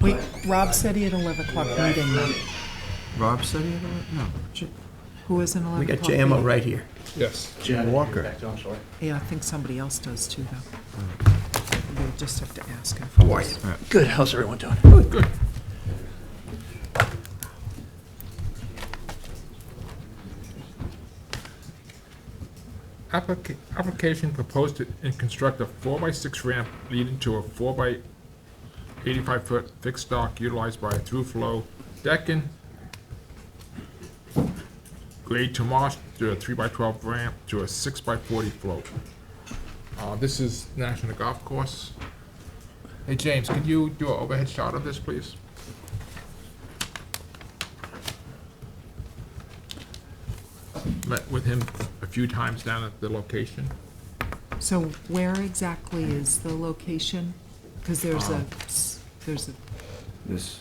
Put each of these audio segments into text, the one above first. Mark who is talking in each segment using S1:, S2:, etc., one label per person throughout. S1: We, Rob said he had an 11 o'clock meeting.
S2: Rob said he had a, no. J-
S1: Who has an 11
S2: We got
S1: o'clock
S2: JMO
S1: meeting?
S2: right here.
S3: Yes.
S2: Jim Walker.
S4: I'm sorry.
S1: Yeah, I think somebody else does too, though.
S2: Mm.
S1: We'll just have to ask him.
S2: How are you?
S4: Good, how's everyone doing?
S3: Applica- Application proposed to and construct a four by six ramp leading to a four by eighty-five foot fixed dock utilized by a through flow decking. Grade to marsh to a three by twelve ramp to a six by forty float. Uh, this is National Golf Course. Hey, James, could you do an overhead shot of this, please? Met with him a few times down at the location.
S1: So where exactly is the location? Because there's
S2: Um.
S1: a, s- there's a,
S2: This.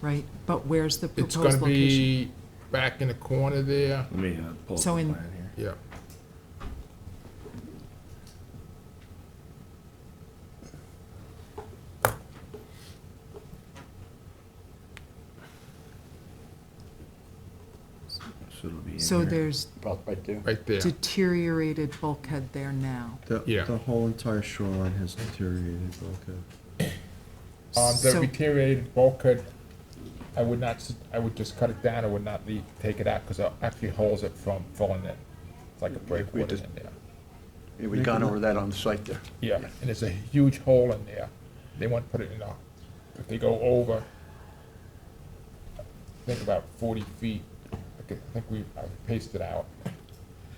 S1: right, but where's the
S3: It's
S1: proposed
S3: gonna
S1: location?
S3: be back in the corner there,
S2: Let me pull
S1: up So the in- plan
S2: here.
S3: yeah.
S2: So it'll be in
S1: So there's
S4: About right there.
S3: Right there.
S1: deteriorated bulkhead there now.
S5: The,
S3: Yeah.
S5: the whole entire shoreline has deteriorated, okay.
S3: Um, the
S1: So-
S3: deteriorated bulkhead, I would not, s- I would just cut it down, I would not leave, take it out, because it actually holds it from falling in. It's like a
S4: we
S3: breakwater
S4: just-
S3: in there.
S4: Yeah, we gone over that on the site there.
S3: Yeah, and there's a huge hole in there. They want to put it in a, if they go over, I think about forty feet, I could- I think we, I pasted out,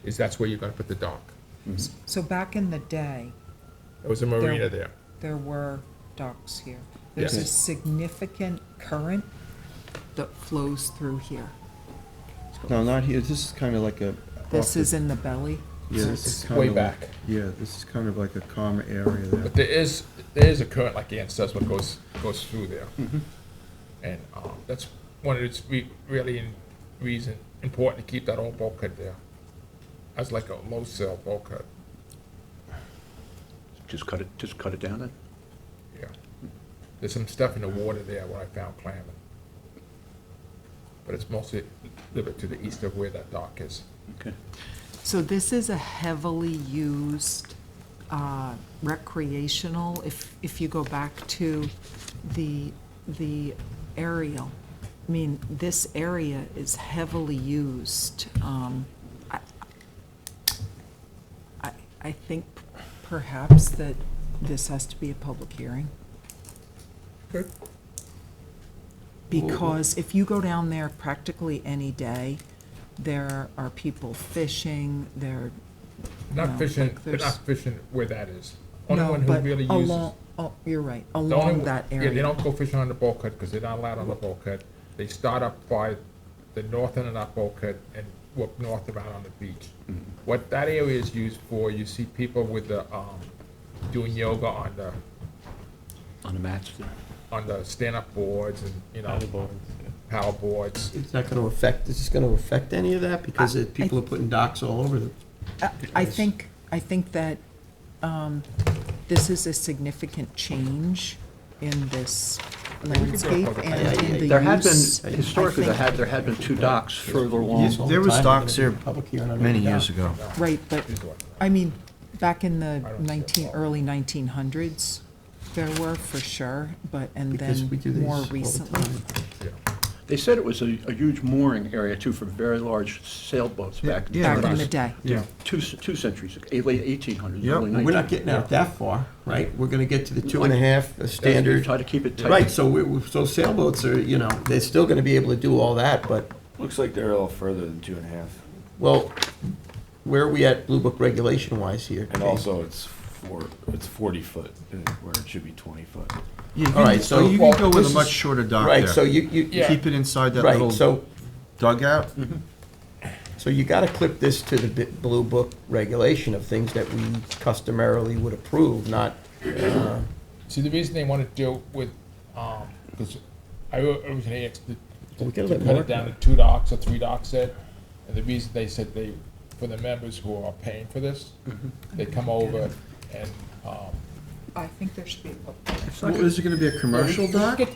S3: is that's where you're gonna put the dock.
S1: So back in the day,
S3: There was a marina there.
S1: there were docks here. There's a
S3: Yes.
S1: significant current that flows through here.
S5: No, not here, this is kind of like a. off
S1: This
S5: the-
S1: is in the belly.
S5: yeah, this is
S3: It's
S5: kinda
S3: way
S5: like-
S3: back.
S5: Yeah, this is kind of like a calm area there.
S3: But there is, there is a current, like Ann says, what goes, goes through there. And, um, that's one of its re- really in- reason, important to keep that old bulkhead there. That's like a low cell bulkhead,
S4: Just cut it, just cut it down then?
S3: yeah. There's some stuff in the water there where I found clamming. But it's mostly a little bit to the east of where that dock is.
S4: Okay.
S1: So this is a heavily used uh, recreational, if, if you go back to the, the aerial. I mean, this area is heavily used. Um, I, I- I think perhaps that this has to be a public hearing.
S3: Good.
S1: Because if you go down there practically any day, there are people fishing, there
S3: Not
S1: No,
S3: fishing,
S1: like
S3: they're not
S1: there's-
S3: fishing where that is. Only
S1: No,
S3: one who
S1: but
S3: really uses.
S1: along- Oh, you're right,
S3: The only
S1: along
S3: one-
S1: that
S3: Yeah, they
S1: area.
S3: don't go fishing on the bulkhead because they're not allowed on the bulkhead. They start up by the north end of that bulkhead and walk north around on the beach. What that area is used for, you see people with the, um, doing yoga on the,
S4: On the mats there.
S3: on the stand-up boards and, you know, paddle boards.
S2: It's not gonna affect, is this gonna affect any of that? Because it- people are putting docks all over the
S1: I- Uh, I think, I think that um, this is a significant change in this landscape and in the use.
S4: There had been, historically, there had, there had been two docks further
S2: Yes,
S4: along.
S2: There was docks there
S5: Public hearing on
S2: many
S5: every
S2: years
S5: dock.
S2: ago.
S1: Right, but,
S3: These are-
S1: I mean, back in the
S3: I don't see it.
S1: 19, early 1900s, there were for sure, but, and
S2: Because
S1: then
S2: we do these
S1: more
S2: all the
S1: recently.
S2: time.
S4: They said it was a, a huge mooring area too for very large sailboats back.
S2: Yeah,
S1: Back in the day.
S2: Yeah.
S4: Two, c- two centuries, eh, late eighteen hundreds,
S2: Yeah,
S4: early
S2: we're
S4: nineteen.
S2: not getting out that far, right? We're gonna get to the two and a half the standard.
S4: Try to keep it tight.
S2: Right, so we, we- so sailboats are, you know, they're still gonna be able to do all that, but,
S6: Looks like they're a little further than two and a half,
S2: well, where are we at Blue Book regulation wise here?
S6: and also it's four, it's forty foot, uh, where it should be twenty foot.
S5: Yeah, you
S2: All right,
S5: can-
S2: so-
S5: You
S2: well,
S5: can go with
S2: this
S5: a
S2: is-
S5: much shorter dock there.
S2: Right, so you, you,
S3: Yeah.
S5: Keep it inside that
S2: right,
S5: little
S2: so,
S5: dugout.
S2: so you gotta clip this to the bi- Blue Book regulation of things that we customarily would approve, not, uh,
S3: See, the reason they want to deal with, um, because I o- originally asked to, to
S2: We gotta let
S3: cut it
S2: Mark
S3: down to
S2: know.
S3: two docks or three docks said, and the reason they said they, for the members who are paying for this,
S2: Mm-hmm.
S3: they come over and, um,
S1: I think there should be a public
S5: Is it gonna be a commercial dock?